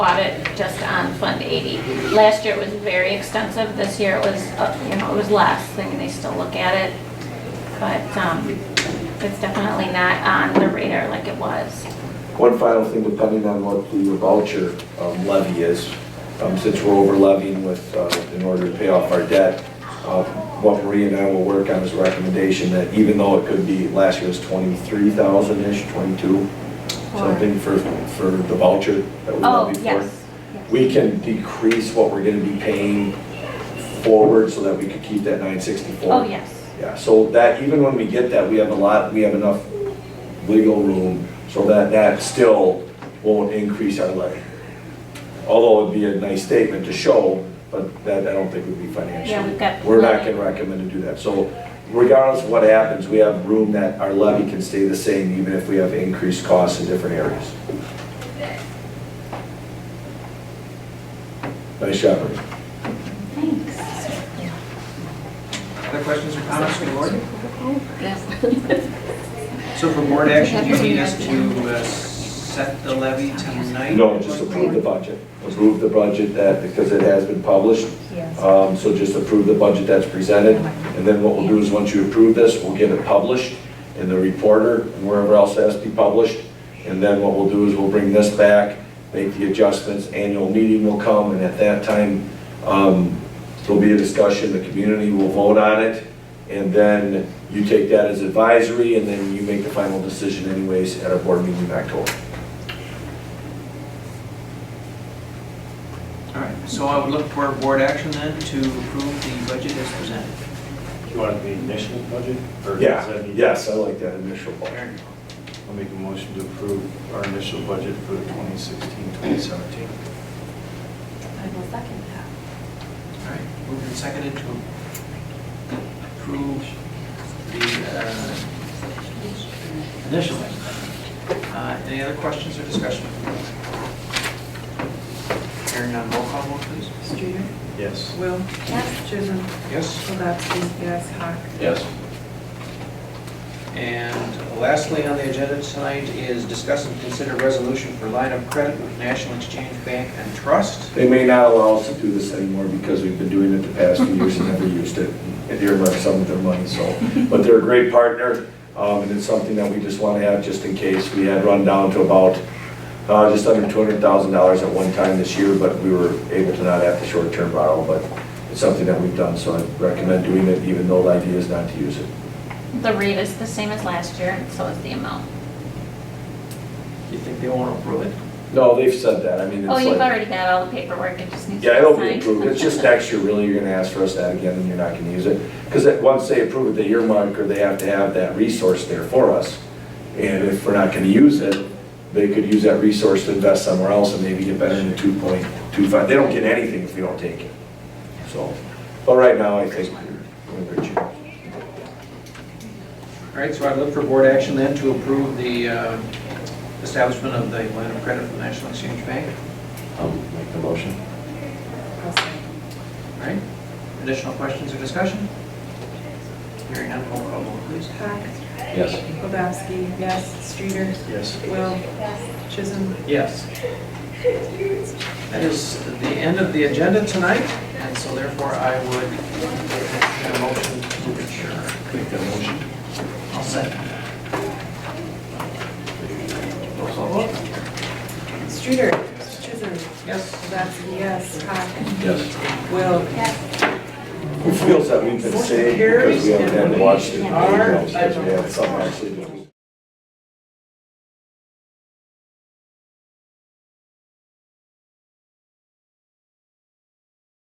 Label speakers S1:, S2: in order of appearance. S1: just on Fund 80. Last year it was very extensive, this year it was, uh, you know, it was less, I mean, they still look at it, but um, it's definitely not on the radar like it was.
S2: One final thing, depending on what the voucher um, levy is, um, since we're over levying with, uh, in order to pay off our debt, uh, what Marie and I will work on is a recommendation that even though it could be, last year was 23,000-ish, 22, something for, for the voucher that we
S1: Oh,
S2: levy for.
S1: yes.
S2: We can decrease what we're gonna be paying forward so that we could keep that 964.
S1: Oh, yes.
S2: Yeah, so that, even when we get that, we have a lot, we have enough legal room so that that still won't increase our levy. Although it'd be a nice statement to show, but that I don't think would be financial.
S1: Yeah, we've got
S2: We're not
S1: plenty.
S2: gonna recommend to do that. So regardless of what happens, we have room that our levy can stay the same even if we have increased costs in different areas. Nice job, Ernie.
S1: Thanks.
S3: Other questions or comments from the board?
S1: Yes.
S3: So for board action, you need us to uh, set the levy tonight?
S2: No, just approve the budget. Approve the budget that, because it has been published. Um, So just approve the budget that's presented. And then what we'll do is, once you approve this, we'll get it published in the reporter and wherever else it has to be published. And then what we'll do is, we'll bring this back, make the adjustments, annual meeting will come, and at that time, um, there'll be a discussion, the community will vote on it, and then you take that as advisory, and then you make the final decision anyways at our board meeting in October.
S3: All right, so I would look for board action then to approve the budget as presented.
S4: You want it to be initial budget? or does
S2: Yeah,
S4: that need-
S2: yes, I like that initial
S3: There
S2: budget.
S3: you go.
S4: I'll make a motion to approve our initial budget for the 2016, 2017.
S5: I will second that.
S3: All right, moved and seconded to approve the uh, initial. Uh, Any other questions or discussion? Hearing none, roll call vote please.
S5: Streeter?
S4: Yes.
S5: Will? Yes. Chisholm?
S3: Yes.
S5: Kowalski? Yes. Hawk?
S2: Yes.
S3: And lastly on the agenda tonight is discuss and consider resolution for line of credit with National Exchange Bank and Trust.
S2: They may not allow us to do this anymore because we've been doing it the past few years and never used it. And they earmarked some of their money, so. But they're a great partner, um, and it's something that we just want to have just in case. We had run down to about, uh, just under two hundred thousand dollars at one time this year, but we were able to not have the short-term borrow, but it's something that we've done, so I recommend doing it, even though the idea is not to use it.
S1: The rate is the same as last year, and so is the amount.
S3: Do you think they won't approve it?
S2: No, they've said that, I mean, it's
S1: Oh,
S2: like.
S1: you've already got all the paperwork, it just needs to be
S2: Yeah,
S1: signed.
S2: it'll be approved, it's just next year, really, you're gonna ask for us that again, and you're not gonna use it. Because once they approve it, the earmark, or they have to have that resource there for us. And if we're not gonna use it, they could use that resource to invest somewhere else and maybe get better than two point two five, they don't get anything if we don't take it. So, but right now, I think we're in good shape.
S3: All right, so I'd look for board action then to approve the uh, establishment of the line of credit with National Exchange Bank.
S4: I'll make the motion.
S5: I'll second.
S3: All right, additional questions or discussion? Hearing none, roll call vote please.
S5: Hawk?
S4: Yes.
S5: Kowalski? Yes. Streeter?
S4: Yes.
S5: Will? Chisholm?
S3: Yes. That is the end of the agenda tonight, and so therefore I would make a motion to adjourn.
S4: Make that motion.
S3: All set. Roll call vote?
S5: Streeter? Chisholm?
S3: Yes.
S5: Kowalski? Yes. Hawk?
S2: Yes.
S5: Will?
S2: Who feels that we've been saved because we haven't had to watch the videos, because we had something actually to do?